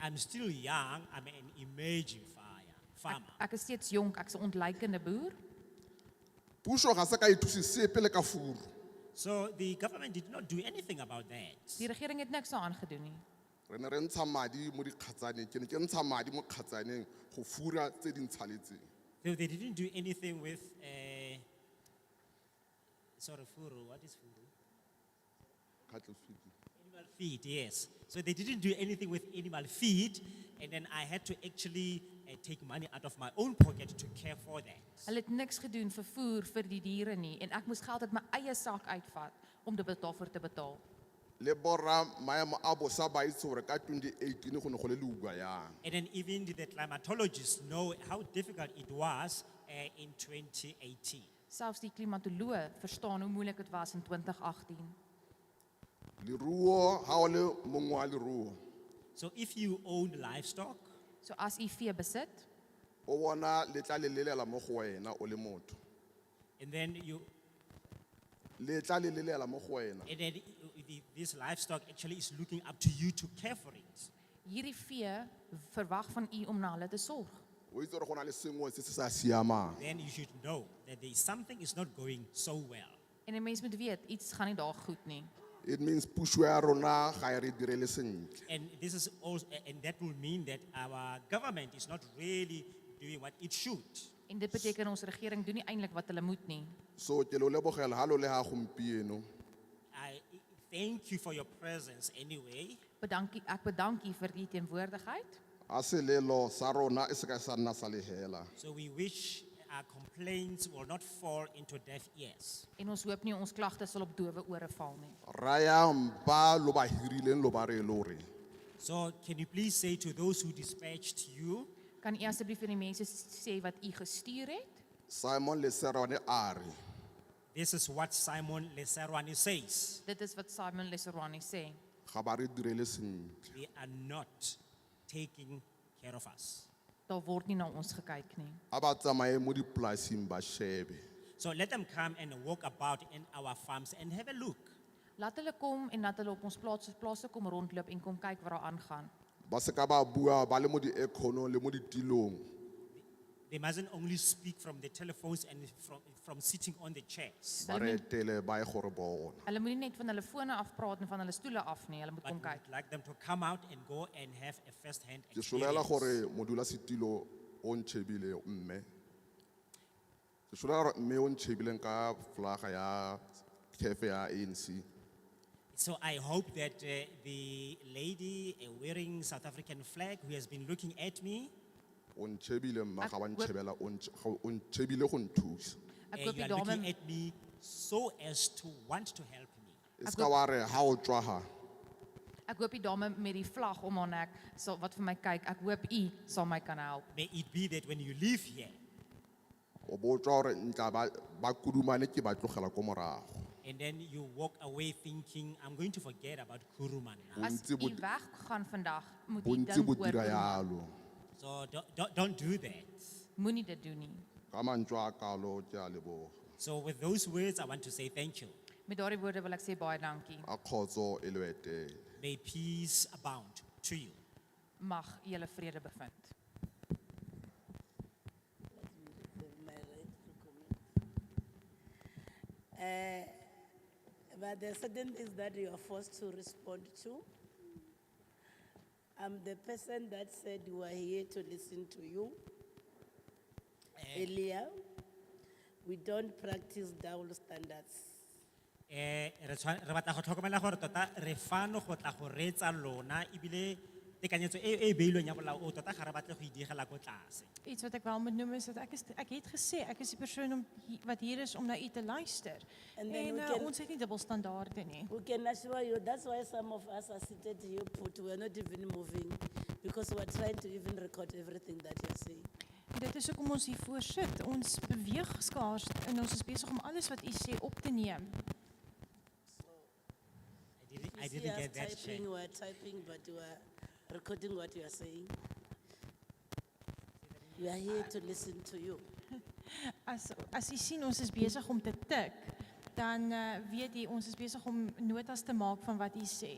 I'm still young. I'm an emerging fire, farmer. Ek is steeds jonk, ek's 'n ontleikende boer. Puso ga se ka ithusi sepe le ka furu. So the government did not do anything about that. Die regering het niks daaraan gedoen nie. Re ne re ntsha madi mo dikgatsaneng, ke ne ke ntsha madi mo kgatsaneng go fura tse di ntshaletseng. They, they didn't do anything with, uh, sorry, furu. What is furu? Cattle feeding. Animal feed, yes. So they didn't do anything with animal feed, and then I had to actually uh, take money out of my own pocket to care for that. Hulle het niks gedoen vir voer vir die diere nie en ek moes geld uit my eie sak uitvat om dit daarvoor te betaal. Le borra maemo a bosa ba itse gore ka 2018 go ne go le leuba yang. And then even the climatologists know how difficult it was uh, in 2018. Selfs die klimatoloë verstaan hoe moeilik dit was in 2018. Leruo ha o le mongwe wa leruo So if you own livestock, So as u vee besit, o bona le tla le lelela mo go wena o le motho. and then you, Le tla le lelela mo go wena. and then i- the, this livestock actually is looking up to you to care for it. hierdie vee verwag van u om na hulle te sorg. O itse gore go na le sengwe se se sa siamang. Then you should know that there is something is not going so well. En 'n mens moet weet, iets gaan nie daar goed nie. It means puso ya rona ga e re direle sentle. And this is also, a- and that will mean that our government is not really doing what it should. En dit beteken ons regering doen nie eintlik wat hulle moet nie. So ke lo lebogela ha lo le ha gompieno. I thank you for your presence anyway. Bedankie, ek bedank u vir u teenwoordigheid. A selelo sa rona e se ka sa nna sa lehela. So we wish our complaints will not fall into deaf ears. En ons hoop nie ons klagtes sal op dowe ore val nie. Raya mpa lo ba hirileng lo ba re lo re. So can you please say to those who dispatched you, Kan u asseblief vir die mense s- sê wat u gestuur het? Simon le serone are. this is what Simon Leserwani says. Dit is wat Simon Leserwani sê. Ga ba re direle sentle. They are not taking care of us. Daar word nie na ons gekyk nie. A ba tsamaye mo dipolaseng ba shebe. So let them come and walk about in our farms and have a look. Laat hulle kom en laat hulle op ons plaas plase kom rondloop en kom kyk wat daar aangaan. Ba se ka ba bua ba le mo di econo le mo ditilong. They mustn't only speak from the telephones and from, from sitting on the chairs, Ba re etele ba e gore bona. Hulle moenie net van hulle fone af praat en van hulle stoele af nie. Hulle moet but kom we'd kyk. like them to come out and go and have a first-hand Ke solela experience. gore modula setilo o ntshebile mme. Ke solela gore mme o ntshebile ka flaga ya kefe ya ANC. So I hope that uh, the lady uh, wearing South African flag who has been looking at me, O ntshebile mma Ak- ga wa wep- ntshebela o ntsh- ga o ntshebile go nthusa. uh, Ek you hoop die are dame looking at me so as to want to help me. E se ka wa re ha o tswa ha. ek hoop die dame met die vlag om haar nek sal wat vir my kyk. Ek hoop u sal my kan help. May it be that when you leave here O bo tswa gore ntla ba ba kudumane ke ba tlogela ko morago. and then you walk away thinking, I'm going to forget about Kuruman now. Mm. As Bontsi u bo- weggaan vandag, moet u Bontsi dink bo oor dira hoe- yalo. So don't, don't, don't do that. moenie dit doen nie. Ka mantswe a kalo ke a leboga. So with those words, I want to say thank you. Met daardie woorde wil ek sê baie dankie. A khotso e le etele. May peace abound to you. Mag julle vrede bevind. my right to comment. Eh, But there are certain things that you are forced to respond to. I'm the person that said you are here to listen to you earlier. We don't practice double standards. Eh, re tshwa- re batla go tlhokomela gore tota re fano go tla go reetsa lona ebile tekanyetso e e beilweng ya molao o tota ga re batle go e diegela ko tlase. Iets wat ik wel moet noemen is dat ik, is, ik het gezegd, ik is die persoon om, hi- wat hier is om naar u te luisteren. En En, dan hoe eh, kan- ons heeft niet dubbelstandaarden. Nee. We can assure you, that's why some of us are seated here put, we're not even moving because we're trying to even record everything that you're saying. Dit is ook om ons hiervoor sit. Ons beweeg skaars en ons is besig om alles wat u sê op te neem. I didn't, I You see didn't us get that check. Typing, we're typing, but we're recording what you are saying. We are here to listen to you. As as u sien ons is besig om te tik, dan eh, weet u ons is besig om notas te maak van wat u sê.